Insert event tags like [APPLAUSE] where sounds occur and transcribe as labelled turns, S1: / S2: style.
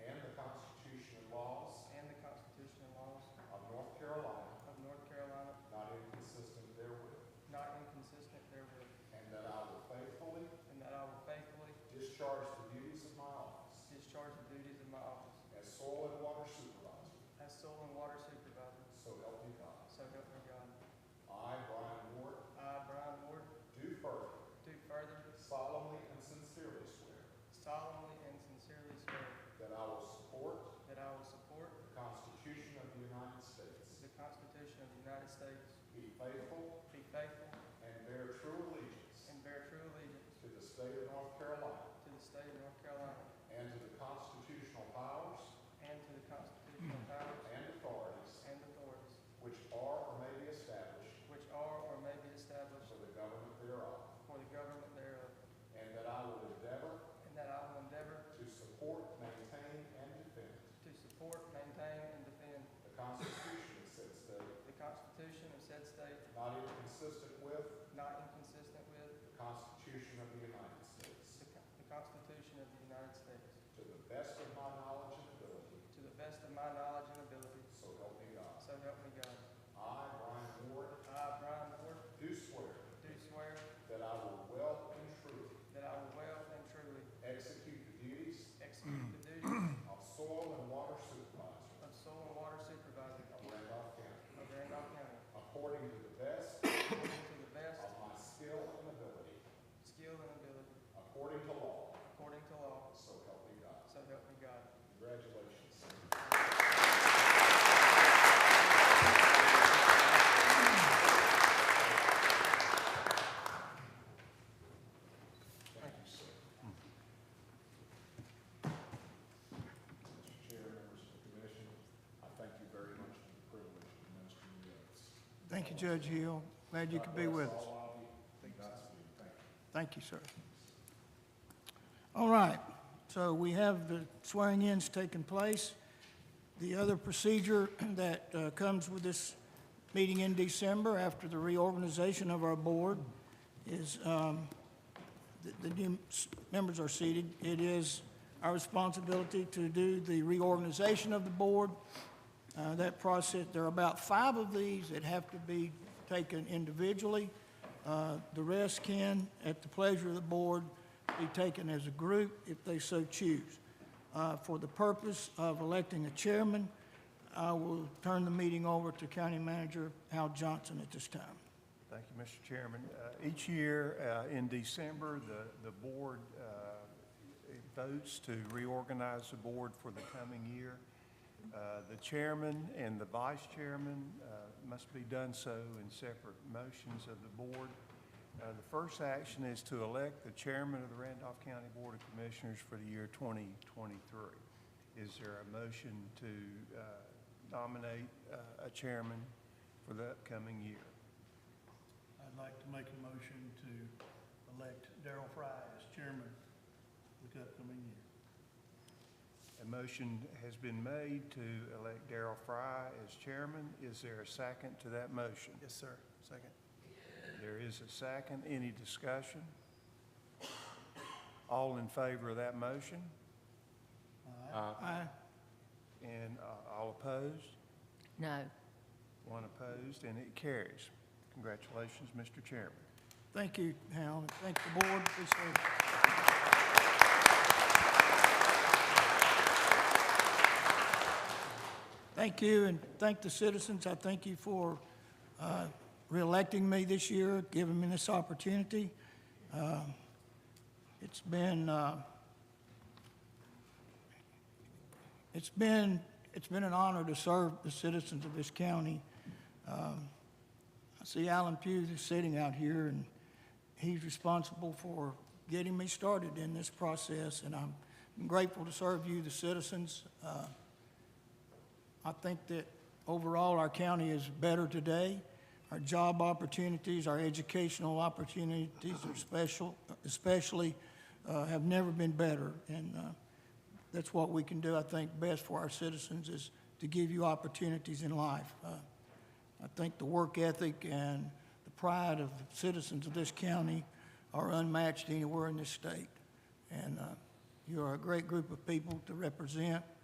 S1: solemnly and sincerely swear
S2: solemnly and sincerely swear
S1: that I will support
S2: that I will support
S1: the Constitution of the United States,
S2: the Constitution of the United States,
S1: be faithful
S2: be faithful,
S1: and bear true allegiance
S2: and bear true allegiance
S1: to the state of North Carolina
S2: to the state of North Carolina
S1: and to the constitutional powers
S2: and to the constitutional powers
S1: and authorities
S2: and authorities
S1: which are or may be established
S2: which are or may be established
S1: for the government thereof,
S2: for the government thereof,
S1: and that I will endeavor
S2: and that I will endeavor
S1: to support, maintain, and defend
S2: to support, maintain, and defend
S1: the Constitution of said state,
S2: the Constitution of said state,
S1: not inconsistent with
S2: not inconsistent with
S1: the Constitution of the United States,
S2: the Con- the Constitution of the United States,
S1: to the best of my knowledge and ability,
S2: to the best of my knowledge and ability,
S1: so help me God.
S2: so help me God.
S1: I, Brian Ward,
S2: I, Brian Ward,
S1: do swear
S2: do swear
S1: that I will well and truly
S2: that I will well and truly
S1: execute the duties
S2: execute the duties
S1: of soil and water supervisor
S2: of soil and water supervisor
S1: of Randolph County,
S2: of Randolph County
S1: according to the best
S2: according to the best
S1: of my skill and ability,
S2: skill and ability,
S1: according to law,
S2: according to law,
S1: so help me God.
S2: so help me God.
S1: Congratulations. Thank you, sir. Mr. Chair, members of the commission, I thank you very much for the privilege of administering the oaths.
S3: Thank you, Judge Hill. Glad you could be with us.
S1: God bless all of you. Godspeed. Thank you.
S3: Thank you, sir. All right, so we have the swearing-ins taking place. The other procedure [CLEARS THROAT] that uh, comes with this meeting in December after the reorganization of our board is um, the the new s- members are seated. It is our responsibility to do the reorganization of the board. Uh, That process, there are about five of these that have to be taken individually. Uh, The rest can, at the pleasure of the board, be taken as a group if they so choose. Uh, For the purpose of electing a chairman, I will turn the meeting over to County Manager Hal Johnson at this time.
S4: Thank you, Mr. Chairman. Uh, Each year uh, in December, the, the board uh, votes to reorganize the board for the coming year. Uh, The chairman and the vice chairman uh, must be done so in separate motions of the board. Uh, The first action is to elect the chairman of the Randolph County Board of Commissioners for the year 2023. Is there a motion to uh, nominate uh, a chairman for the upcoming year?
S5: I'd like to make a motion to elect Darrell Fry as chairman for the upcoming year.
S4: A motion has been made to elect Darrell Fry as chairman. Is there a second to that motion?
S5: Yes, sir. Second.
S4: There is a second. Any discussion? All in favor of that motion?
S3: Aye.
S4: And uh, all opposed?
S6: No.
S4: One opposed, and it carries. Congratulations, Mr. Chairman.
S3: Thank you, Hal, and thank the board. Appreciate it. Thank you, and thank the citizens. I thank you for uh, reelecting me this year, giving me this opportunity. Uh, It's been, uh, it's been, it's been an honor to serve the citizens of this county. I see Alan Pugh is sitting out here, and he's responsible for getting me started in this process, and I'm grateful to serve you, the citizens. Uh, I think that overall, our county is better today. Our job opportunities, our educational opportunities are special, especially, uh, have never been better, and uh, that's what we can do, I think, best for our citizens, is to give you opportunities in life. Uh, I think the work ethic and the pride of the citizens of this county are unmatched anywhere in this state. And uh, you are a great group of people to represent